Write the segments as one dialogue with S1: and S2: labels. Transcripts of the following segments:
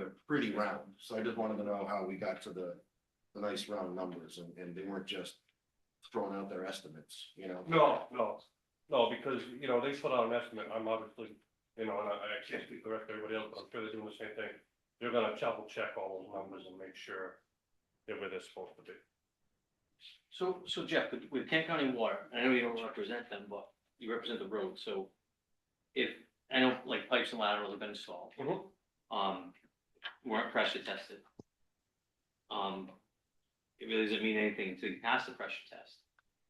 S1: they're pretty round, so I just wanted to know how we got to the, the nice round numbers and, and they weren't just throwing out their estimates, you know?
S2: No, no, no, because, you know, they put out an estimate, I'm obviously, you know, and I, I can't speak for everybody else, but I'm sure they're doing the same thing. They're gonna double check all those numbers and make sure they're where they're supposed to be.
S3: So, so Jeff, with- with Kent County Water, I know you don't represent them, but you represent the road, so if, I know like pipes and laterals have been installed,
S2: Mhm.
S3: um, weren't pressure tested. Um, it really doesn't mean anything until you pass the pressure test.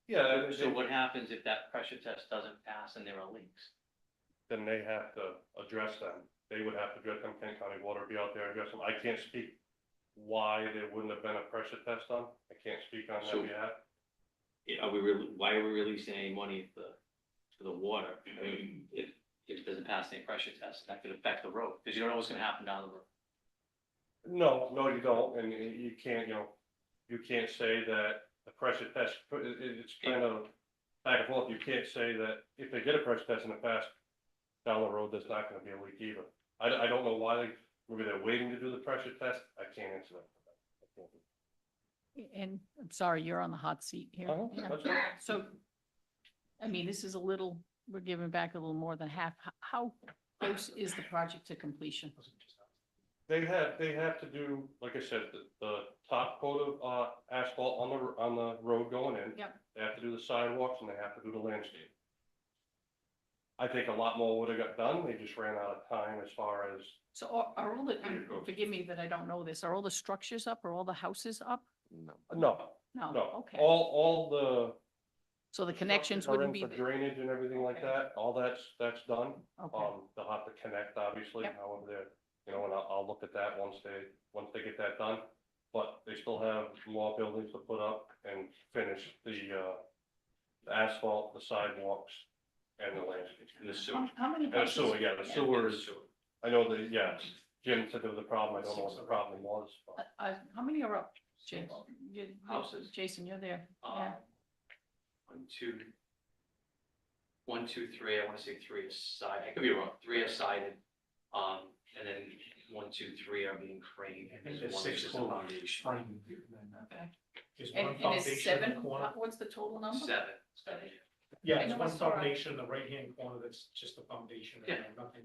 S2: Yeah,
S3: So
S2: and-
S3: what happens if that pressure test doesn't pass and there are leaks?
S2: then they have to address them. They would have to address them, Kent County Water would be out there addressing. them. I can't speak why there wouldn't have been a pressure test done. I can't speak on
S3: So-
S2: that behalf.
S3: Yeah, Are we really, why are we releasing any money if the, for the water? I mean, if, if it doesn't pass any pressure test, that could affect the road, because you don't know what's gonna happen down the road.
S2: No, no, you don't, and you you can't, you know, you can't say that the pressure test, it, it- it's kind of back and forth. You can't say that if they get a pressure test in the past, down the road, there's not gonna be a leak either. I, don't- I don't know why, they maybe they're waiting to do the pressure test. I can't answer that. I can't.
S4: And I'm sorry, you're on the hot seat here.
S2: Uh-huh,
S4: Yeah.
S2: that's all.
S4: So, I mean, this is a little, we're giving back a little more than half. H- How close is the project to completion?
S2: They have, they have to do, like I said, the, the top coat of, uh, asphalt on the, on the road going in.
S4: Yep.
S2: They have to do the sidewalks and they have to do the landscape. I think a lot more would have got done, they just ran out of time as far as,
S4: So are- are all the,
S2: Pretty close.
S4: forgive me that I don't know this, are all the structures up? Are all the houses up?
S1: No.
S2: no,
S4: No,
S2: no,
S4: Oh, okay.
S2: all, all the.
S4: So the connections
S2: structures are
S4: wouldn't
S2: in
S4: be,
S2: for
S4: there.
S2: Drainage and everything like
S4: Okay.
S2: that, all that's, that's done.
S4: okay,
S2: Um, they'll have to connect, obviously,
S4: Yep.
S2: however they're, you know, and I'll, I'll look at that once they, once they get that done. But they still have more buildings to put up and finish the, uh, the asphalt, the sidewalks, and the landscape.
S3: And the sewer.
S4: How how many
S2: And the
S4: houses?
S2: sewer, yeah, the sewer is, I know the, yeah, Jim said there was a problem, I don't know what the problem was,
S4: Uh,
S2: but
S4: uh, How many are up, Jason? You-
S3: Houses.
S4: Jason, you're there.
S3: Um,
S4: Yeah.
S3: One, two. One, two, three, I wanna say three is side, I could be wrong, three are sided, um, and then one, two, three are being framed.
S5: I think
S3: and
S5: there's
S3: one
S5: six
S3: is a
S5: total.
S3: foundation.
S5: Fine.
S4: Okay.
S5: uh, There's
S4: And
S5: one
S4: and is
S5: foundation in
S4: seven,
S5: the corner.
S4: what's the total number?
S3: Seven.
S4: Uh-huh. Seven.
S5: Yeah,
S4: I know
S5: there's
S4: I
S5: one
S4: saw it.
S5: foundation in the right-hand corner that's just the foundation.
S3: Yeah.
S5: Nothing.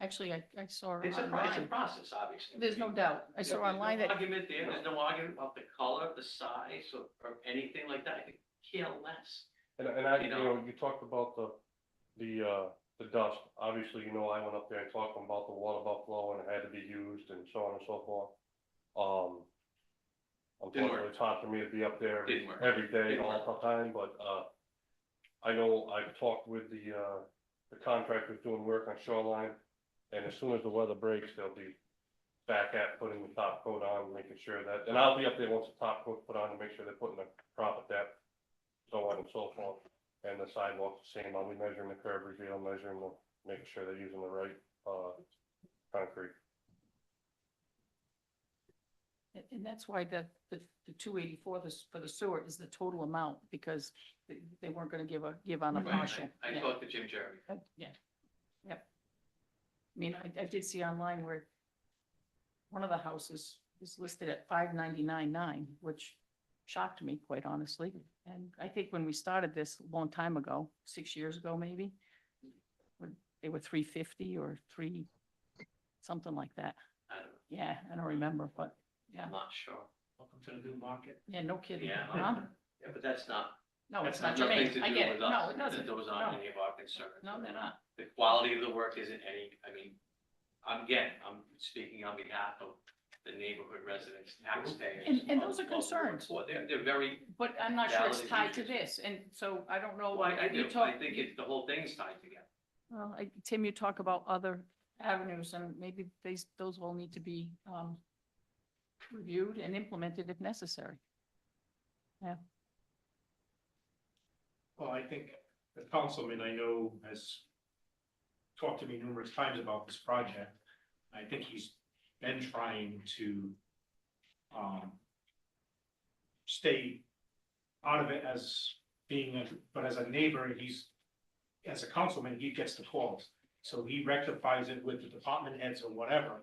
S4: Actually, I, I saw it
S3: It's a, pro- it's a
S4: online.
S3: process, obviously.
S4: There's no doubt. I saw
S3: There's no
S4: online that,
S3: Argument there, there's no argument about the color, the size, or, or anything like that, I could care less.
S2: and, and I,
S3: You
S2: you
S3: know.
S2: know, you talked about the, the, uh, the dust. Obviously, you know, I went up there and talked about the water buffalo and it had to be used and so on and so forth. Um,
S3: Didn't work.
S2: unfortunately, it's hard for me to be up there
S3: Didn't work.
S2: every day,
S3: Didn't
S2: all the time, but, uh, I know I've talked with the, uh, the contractors doing work on shoreline, and as soon as the weather breaks, they'll be back at putting the top coat on, making sure that, and I'll be up there once the top coat's put on to make sure they're putting the proper depth, so on and so forth, and the sidewalk's the same, I'll be measuring the curb reveal, measuring the, making sure they're using the right, uh, concrete.
S4: and- and that's why the, the, the two eighty-four, this, for the sewer is the total amount, because they, they weren't gonna give a, give on a
S3: Right, I-
S4: partial.
S3: I
S4: Yeah,
S3: talked to Jim Jeremy.
S4: uh, Yeah, yep. I mean, I, I did see online where one of the houses is listed at five ninety-nine nine, which shocked me, quite honestly. And I think when we started this a long time ago, six years ago maybe, when they were three fifty or three, something like that.
S3: I don't know,
S4: Yeah, I don't remember, but
S3: I'm not sure.
S5: Welcome to the new market.
S4: yeah, no kidding.
S3: Yeah.
S4: Huh?
S3: Yeah, but that's not,
S4: No, Oh, it's
S5: That's
S4: not
S3: That's
S4: germane.
S3: nothing to
S4: I
S3: do
S4: get it.
S3: with
S4: No,
S3: us.
S4: it doesn't.
S3: Those
S4: No.
S3: aren't any of our concerns.
S4: No, they're not.
S3: The quality of the work isn't any, I mean, I'm, again, I'm speaking on behalf of the neighborhood residents, taxpayers.
S4: And- and those
S3: of-
S4: are
S3: of the
S4: concerns.
S3: workforce. They're, they're very,
S4: But I'm not sure it's
S3: Valid
S4: tied to
S3: issues.
S4: this. And so Oh, I don't know.
S3: well, I, I
S4: you
S3: do, I
S4: talk-
S3: think it's, the whole thing's tied together.
S4: Well, I- Tim, you talk about other avenues and maybe these, those will need to be um, reviewed and implemented if necessary.
S5: Well, I think the councilman I know has talked to me numerous times about this project. I think he's been trying to um stay out of it as being, a but as a neighbor, he's, as a councilman, he gets the calls. So he rectifies it with the department heads or whatever.